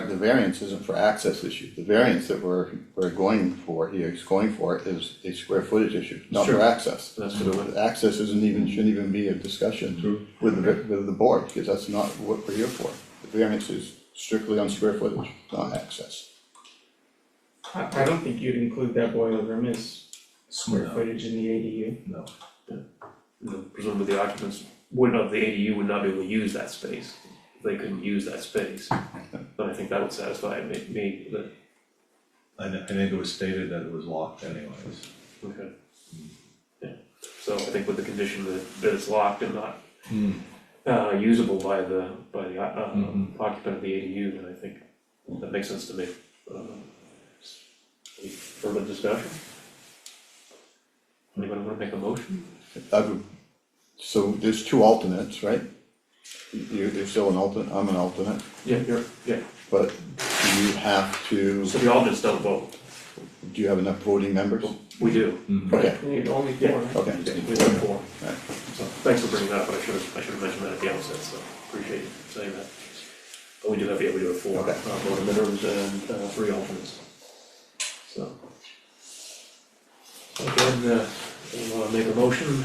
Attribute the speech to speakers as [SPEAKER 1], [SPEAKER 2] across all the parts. [SPEAKER 1] The variance isn't for access issue, the variance that we're, we're going for here, is going for is a square footage issue, not for
[SPEAKER 2] Sure.
[SPEAKER 1] access.
[SPEAKER 2] That's what it was.
[SPEAKER 1] Access isn't even, shouldn't even be a discussion with the, with the board, because that's not what we're here for. The variance is strictly on square footage, not access.
[SPEAKER 3] I, I don't think you'd include that boiler room as square
[SPEAKER 2] No.
[SPEAKER 3] footage in the ADU.
[SPEAKER 2] No. You know, Presumably the occupants would not, the ADU would not be able to use that space, they couldn't use that space. But I think that would satisfy me, me, that,
[SPEAKER 4] I thi- I think it was stated that it was locked anyways.
[SPEAKER 2] okay. Yeah, so I think with the condition that, that it's locked and not uh usable by the, by the uh
[SPEAKER 4] Mhm.
[SPEAKER 2] occupant of the ADU, then I think that makes sense to me. Um, Any further discussion? Anyone wanna make a motion?
[SPEAKER 1] I would, so there's two alternates, right? You, you're still an alternate, I'm an alternate,
[SPEAKER 2] Yeah, you're, yeah,
[SPEAKER 1] but do you have to,
[SPEAKER 2] so the alternates don't vote,
[SPEAKER 1] do you have enough voting members?
[SPEAKER 2] we do.
[SPEAKER 1] Okay,
[SPEAKER 3] You need only
[SPEAKER 2] Yeah.
[SPEAKER 3] four.
[SPEAKER 1] okay.
[SPEAKER 2] We have four.
[SPEAKER 1] Right.
[SPEAKER 2] So thanks for bringing that up, but I should have, I should have mentioned that at the outset, so appreciate you saying that. But we do have, yeah, we do have four, uh,
[SPEAKER 1] Okay.
[SPEAKER 2] voter minimums and, uh, three alternates. So. Again, uh, we wanna make a motion,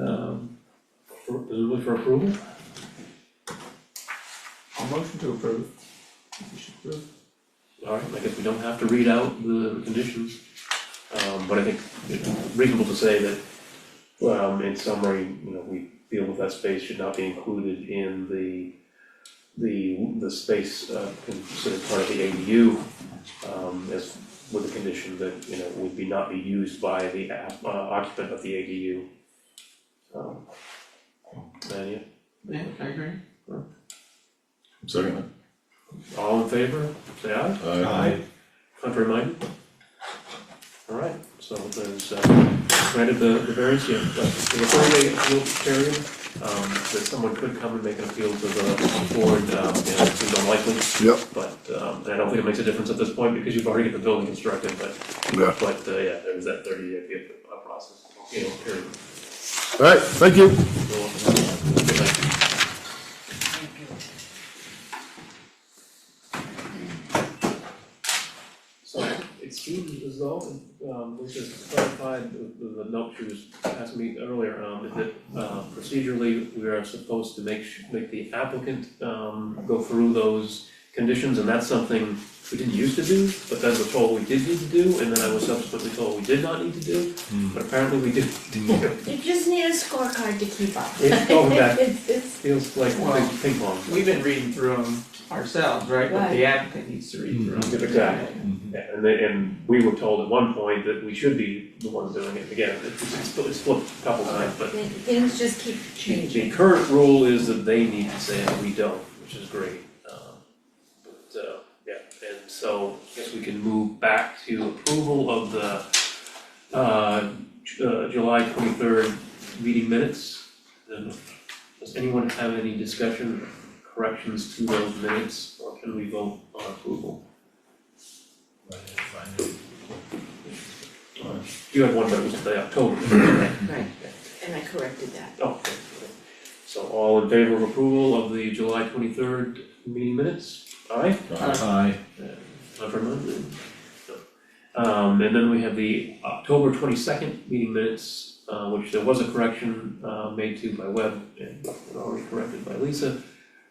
[SPEAKER 2] um, for, presumably for approval?
[SPEAKER 3] I'll motion to approve. You should approve.
[SPEAKER 2] All right, I guess we don't have to read out the conditions. Um, but I think it's reasonable to say that, um, in summary, you know, we feel that that space should not be included in the, the, the space, uh, considered part of the ADU, um, as with the condition that, you know, would be not be used by the app- uh, occupant of the ADU. Um, and yeah,
[SPEAKER 3] Yeah, I agree.
[SPEAKER 5] Second.
[SPEAKER 2] all in favor, say aye.
[SPEAKER 5] Aye.
[SPEAKER 2] Contrary minded? All right, so there's, uh, granted the, the variance, yeah, but the four-day appeal period, um, that someone could come and make an appeal to the board, um, you know, it seems unlikely,
[SPEAKER 1] Yep,
[SPEAKER 2] but, um, and I don't think it makes a difference at this point because you've already got the building constructed, but,
[SPEAKER 1] yeah.
[SPEAKER 2] but, uh, yeah, there's that thirty-day appeal uh, process, you know, period.
[SPEAKER 1] All right, thank you.
[SPEAKER 2] So, good night. So it seems as though, um, we just clarified with the, the note she was asking me earlier, um, is that, uh, procedurally, we are supposed to make, su- make the applicant, um, go through those conditions, and that's something we didn't used to do, but then we're told we did need to do, and then I was subsequently told we did not need to do, but apparently we did.
[SPEAKER 6] You just need a scorecard to keep up.
[SPEAKER 2] It's going back.
[SPEAKER 6] It's, it's,
[SPEAKER 2] Feels like
[SPEAKER 3] Well,
[SPEAKER 2] ping- ping pong.
[SPEAKER 3] We've been reading through them ourselves, right? But the
[SPEAKER 6] Right.
[SPEAKER 3] applicant needs to read through them.
[SPEAKER 2] Exactly.
[SPEAKER 4] Mm-hmm.
[SPEAKER 2] Yeah, and they, and we were told at one point that we should be the ones doing it again, it's, it's flipped- it's flipped a couple times, but
[SPEAKER 6] it- things just keep
[SPEAKER 2] the
[SPEAKER 6] changing.
[SPEAKER 2] current rule is that they need to say it, we don't, which is great. Um, But, uh, yeah, and so I guess we can move back to approval of the, uh, Ju- uh, July twenty-third meeting minutes. And does anyone have any discussion, corrections to those minutes, or can we vote on approval? Uh, You had one that was the October, right?
[SPEAKER 6] Right, and I corrected that.
[SPEAKER 2] Oh, okay, okay. So all in favor of approval of the July twenty-third meeting minutes? Aye?
[SPEAKER 4] Aye.
[SPEAKER 2] Not for a moment? No. Um, and then we have the October twenty-second meeting minutes, uh, which there was a correction, uh, made to by Webb and already corrected by Lisa.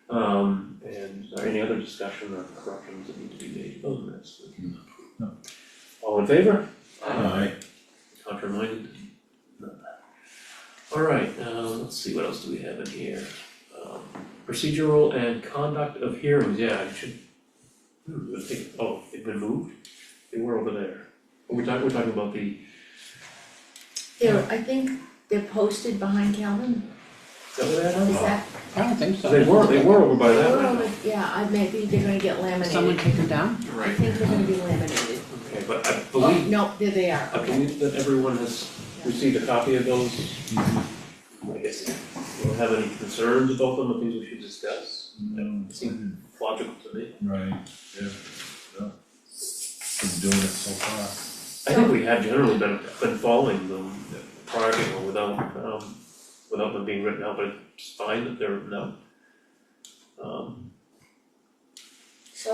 [SPEAKER 2] Um, and is there any other discussion or corrections that need to be made to those minutes?
[SPEAKER 4] No.
[SPEAKER 2] All in favor?
[SPEAKER 4] Aye.
[SPEAKER 2] Contraminded? Alright, uh, let's see, what else do we have in here? Um, Procedural and conduct of hearings, yeah, I should. Hmm, I think, oh, they've been moved, they were over there. We're talking, we're talking about the,
[SPEAKER 6] They're, I think they're posted behind Calvin,
[SPEAKER 2] is that where they
[SPEAKER 6] is
[SPEAKER 2] are?
[SPEAKER 6] that?
[SPEAKER 7] I don't think so.
[SPEAKER 2] They were, they were over by Oh. that
[SPEAKER 6] Oh,
[SPEAKER 2] window.
[SPEAKER 6] but Yeah, I, maybe they're gonna get laminated.
[SPEAKER 7] Someone take them down?
[SPEAKER 6] I think they're gonna be laminated.
[SPEAKER 2] Okay, but I
[SPEAKER 6] Oh,
[SPEAKER 2] believe,
[SPEAKER 6] no, there they are,
[SPEAKER 2] I believe that everyone has received a copy of those. I guess, we don't have any concerns about them, or things we should discuss, that seemed logical to me.
[SPEAKER 4] Right, yeah, yeah. Been doing it so far.
[SPEAKER 2] I think we have generally been, been following them prior to or without, um, without them being written out, but it's fine that they're written out. Um,